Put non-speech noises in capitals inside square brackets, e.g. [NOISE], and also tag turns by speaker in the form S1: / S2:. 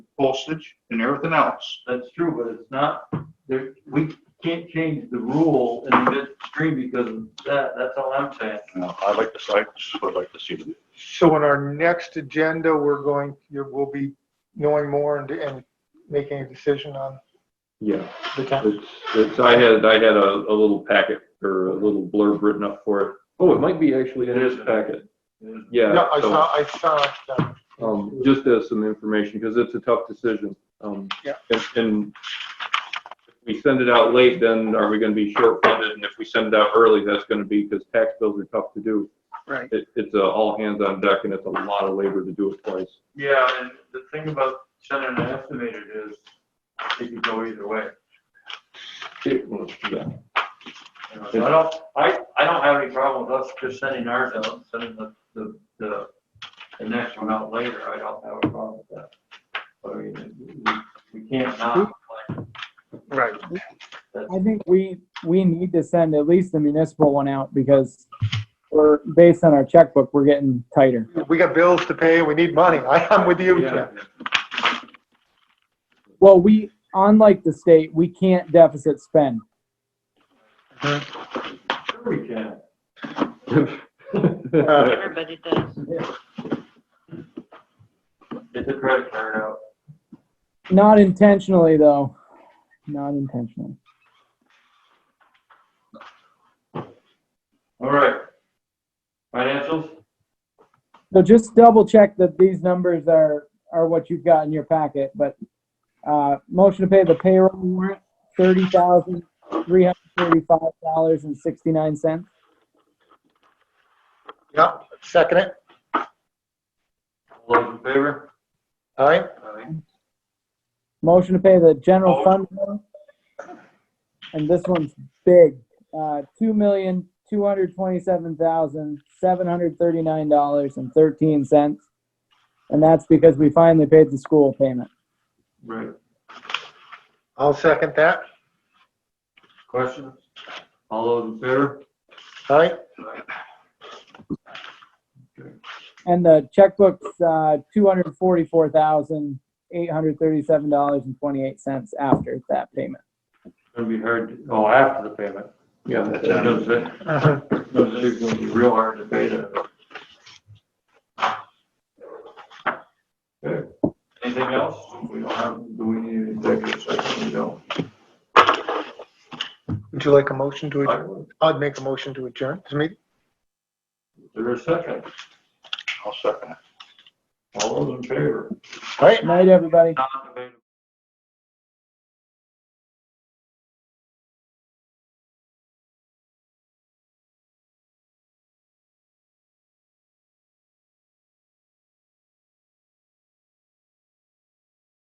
S1: postage and everything else.
S2: That's true, but it's not, there, we can't change the rule in midstream because of that, that's all I'm saying.
S1: Now, I like the sites, I'd like to see them.
S3: So in our next agenda, we're going, you will be knowing more and, and making a decision on
S4: Yeah,
S3: the town.
S4: it's, it's, I had, I had a, a little packet or a little blurb written up for it. Oh, it might be actually in this packet. Yeah.
S3: No, I
S4: so-
S3: saw, I saw it, um,
S4: um, just as some information, because it's a tough decision. Um,
S3: Yeah.
S4: And, and if we send it out late, then are we gonna be short funded? And if we send it out early, that's gonna be, because tax bills are tough to do.
S3: Right.
S4: It, it's a all hands on deck and it's a lot of labor to do it twice.
S2: Yeah, and the thing about sending an estimated is, it could go either way.
S4: [LAUGHS] Yeah.
S2: You know, so I don't, I, I don't have any problem with us just sending ours out, sending the, the, the, the next one out later, I don't have a problem with that. But I mean, we- we can't not, like,
S3: Right.
S5: I think we, we need to send at least the municipal one out because we're, based on our checkbook, we're getting tighter.
S3: We got bills to pay, we need money. [LAUGHS] I, I'm with you, Jim.
S5: Well, we, unlike the state, we can't deficit spend.
S2: sure we can.
S6: Everybody does.
S2: Get the credit card out.
S5: Not intentionally, though. Not intentionally.
S2: All right. Financials?
S5: So just double check that these numbers are, are what you've got in your packet, but, uh, motion to pay the payroll warrant, thirty thousand, three hundred thirty-five dollars and sixty-nine cents.
S3: Yeah, second it.
S2: All those in favor?
S3: All right,
S2: Aye.
S5: Motion to pay the general
S2: Oh.
S5: fund. bill. And this one's big, uh, two million, two hundred twenty-seven thousand, seven hundred thirty-nine dollars and thirteen cents. And that's because we finally paid the school payment.
S2: Right.
S3: I'll second that.
S2: Questions? All those in favor?
S3: All right, [LAUGHS]
S5: And the checkbook's, uh, two hundred forty-four thousand, eight hundred thirty-seven dollars and twenty-eight cents after that payment.
S2: It's gonna be hard, to- oh, after the payment.
S4: Yeah,
S2: That's it. Those that-
S3: Mhm.
S2: those that are gonna be real hard to pay that. Okay. Anything else? We don't have, do we need an executive session? We don't.
S3: would you like a motion to adjourn?
S2: Is
S3: I'd make a motion to adjourn. This meeting-
S2: there a second?
S1: I'll second it.
S2: All those in favor?
S3: All right,
S5: Good night, everybody.
S2: Not